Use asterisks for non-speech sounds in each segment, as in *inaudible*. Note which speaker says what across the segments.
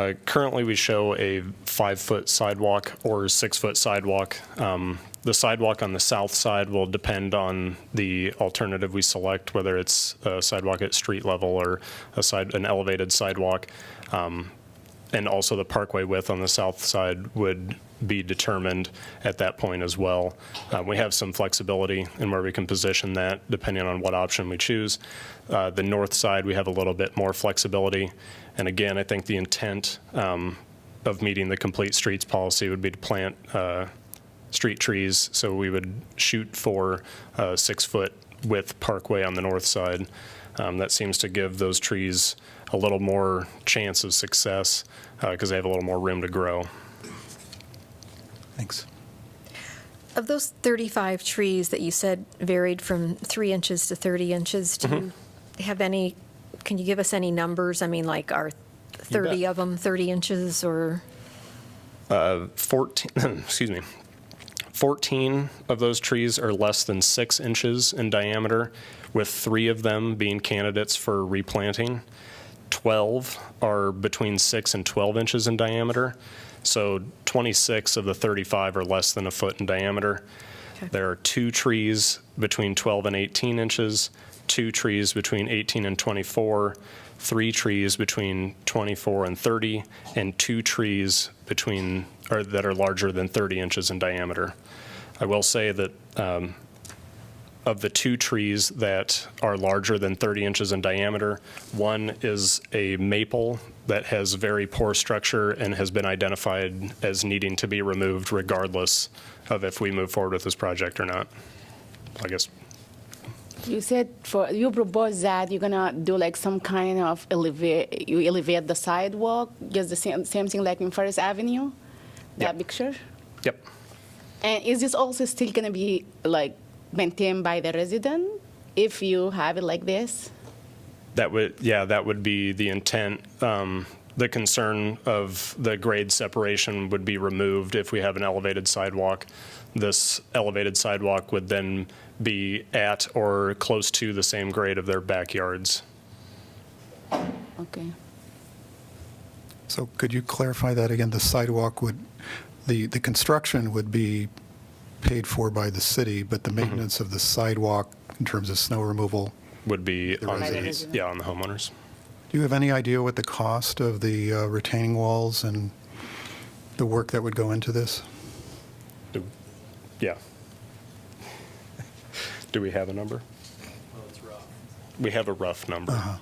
Speaker 1: Uh, Currently, we show a five-foot sidewalk or six-foot sidewalk. Um, The sidewalk on the south side will depend on the alternative we select, whether it's a sidewalk at street level or a side, an elevated sidewalk. Um, And also the parkway width on the south side would be determined at that point as well. Uh, We have some flexibility in where we can position that depending on what option we choose. Uh, The north side, we have a little bit more flexibility. And again, I think the intent um, of meeting the complete streets policy would be to plant uh, street trees. So we would shoot for a six-foot width parkway on the north side. Um, that seems to give those trees a little more chance of success because they have a little more room to grow.
Speaker 2: Thanks.
Speaker 3: Of those 35 trees that you said varied from three inches to 30 inches, do
Speaker 1: Mm-hmm.
Speaker 3: you have any, can you give us any numbers? I mean, like, are 30
Speaker 1: bet.
Speaker 3: of them 30 inches or?
Speaker 1: 14, *laughs* excuse me, 14 of those trees are less than six inches in diameter, with three of them being candidates for replanting. 12 are between six and 12 inches in diameter. So 26 of the 35 are less than a foot in diameter. There are two trees between 12 and 18 inches, two trees between 18 and 24, three trees between 24 and 30, and two trees between, or that are larger than 30 inches in diameter. I will say that um, of the two trees that are larger than 30 inches in diameter, one is a maple that has very poor structure and has been identified as needing to be removed regardless of if we move forward with this project or not. I guess,
Speaker 4: You said for you propose that you're gonna do like some kind of elevate you elevate the sidewalk, just the same same thing like in First Avenue,
Speaker 1: Yeah.
Speaker 4: that picture.
Speaker 1: yep.
Speaker 4: And is this also still gonna be like maintained by the resident if you have it like this?
Speaker 1: That would, yeah, that would be the intent. Um, The concern of the grade separation would be removed if we have an elevated sidewalk. This elevated sidewalk would then be at or close to the same grade of their backyards.
Speaker 4: Okay.
Speaker 2: So could you clarify that again? The sidewalk would, the, the construction would be paid for by the city, but the maintenance of the sidewalk in terms of snow removal,
Speaker 1: would be on the,
Speaker 4: residents.
Speaker 1: yeah, on the homeowners.
Speaker 2: do you have any idea what the cost of the uh, retaining walls and the work that would go into this?
Speaker 1: Do- Yeah. Do we have a number?
Speaker 5: Oh,
Speaker 1: We have a rough number.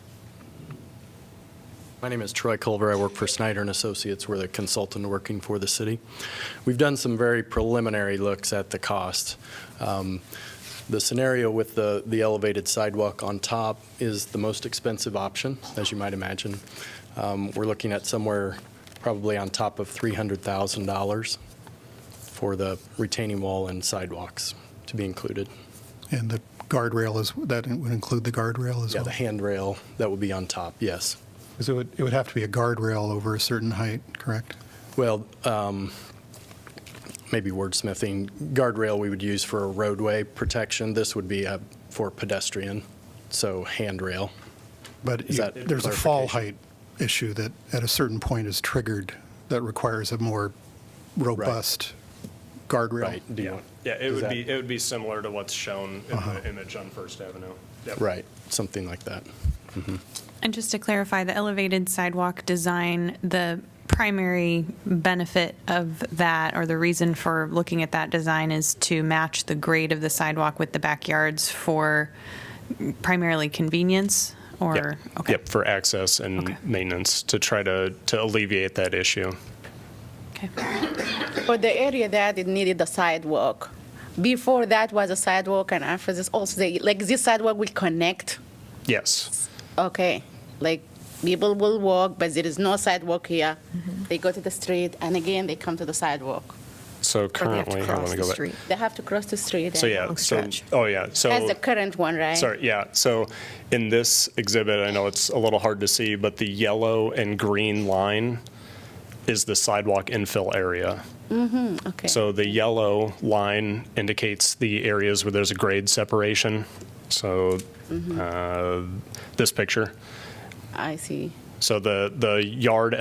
Speaker 5: My name is Troy Culver. I work for Snyder and Associates. We're the consultant working for the city. We've done some very preliminary looks at the cost. Um, The scenario with the the elevated sidewalk on top is the most expensive option, as you might imagine. Um, We're looking at somewhere probably on top of $300,000 for the retaining wall and sidewalks to be included.
Speaker 2: And the guardrail is, that would include the guardrail as
Speaker 5: Yeah,
Speaker 2: well?
Speaker 5: the handrail, that would be on top, yes.
Speaker 2: So it would, it would have to be a guardrail over a certain height, correct?
Speaker 5: Well, um, maybe wordsmithing, guardrail we would use for a roadway protection. This would be uh, for pedestrian, so handrail.
Speaker 2: But
Speaker 5: Is
Speaker 2: you-
Speaker 5: that
Speaker 2: there's a fall height issue that at a certain point is triggered that requires a more robust guardrail.
Speaker 5: Right, do you want-
Speaker 1: Yeah, it
Speaker 5: Is
Speaker 1: would
Speaker 5: that-
Speaker 1: be, it would be similar to what's shown in the image on First Avenue. Yep.
Speaker 5: Right, something like that.
Speaker 6: And just to clarify, the elevated sidewalk design, the primary benefit of that, or the reason for looking at that design is to match the grade of the sidewalk with the backyards for primarily convenience,
Speaker 1: Yep.
Speaker 6: or? okay.
Speaker 1: Yep, for access and
Speaker 6: Okay.
Speaker 1: maintenance to try to, to alleviate that issue.
Speaker 6: Okay.
Speaker 4: For the area that it needed the sidewalk, before that was a sidewalk, and after this also they, like this sidewalk will connect.
Speaker 1: Yes,
Speaker 4: Okay, like people will walk, but there is no sidewalk here. They go to the street, and again they come to the sidewalk.
Speaker 1: so
Speaker 3: or they have to
Speaker 1: currently, I
Speaker 3: cross
Speaker 1: want to
Speaker 3: the
Speaker 1: go back.
Speaker 3: street?
Speaker 4: They have to cross the street.
Speaker 1: So
Speaker 4: and-
Speaker 1: yeah,
Speaker 3: Long
Speaker 1: so,
Speaker 3: stretch.
Speaker 1: oh yeah, so.
Speaker 4: That's the current one, right?
Speaker 1: Sorry, yeah. So in this exhibit, I know it's a little hard to see, but the yellow and green line is the sidewalk infill area.
Speaker 4: Okay.
Speaker 1: So the yellow line indicates the areas where there's a grade separation. So
Speaker 3: Mm-hmm.
Speaker 1: uh, this picture.
Speaker 4: I see.
Speaker 1: So the, the yard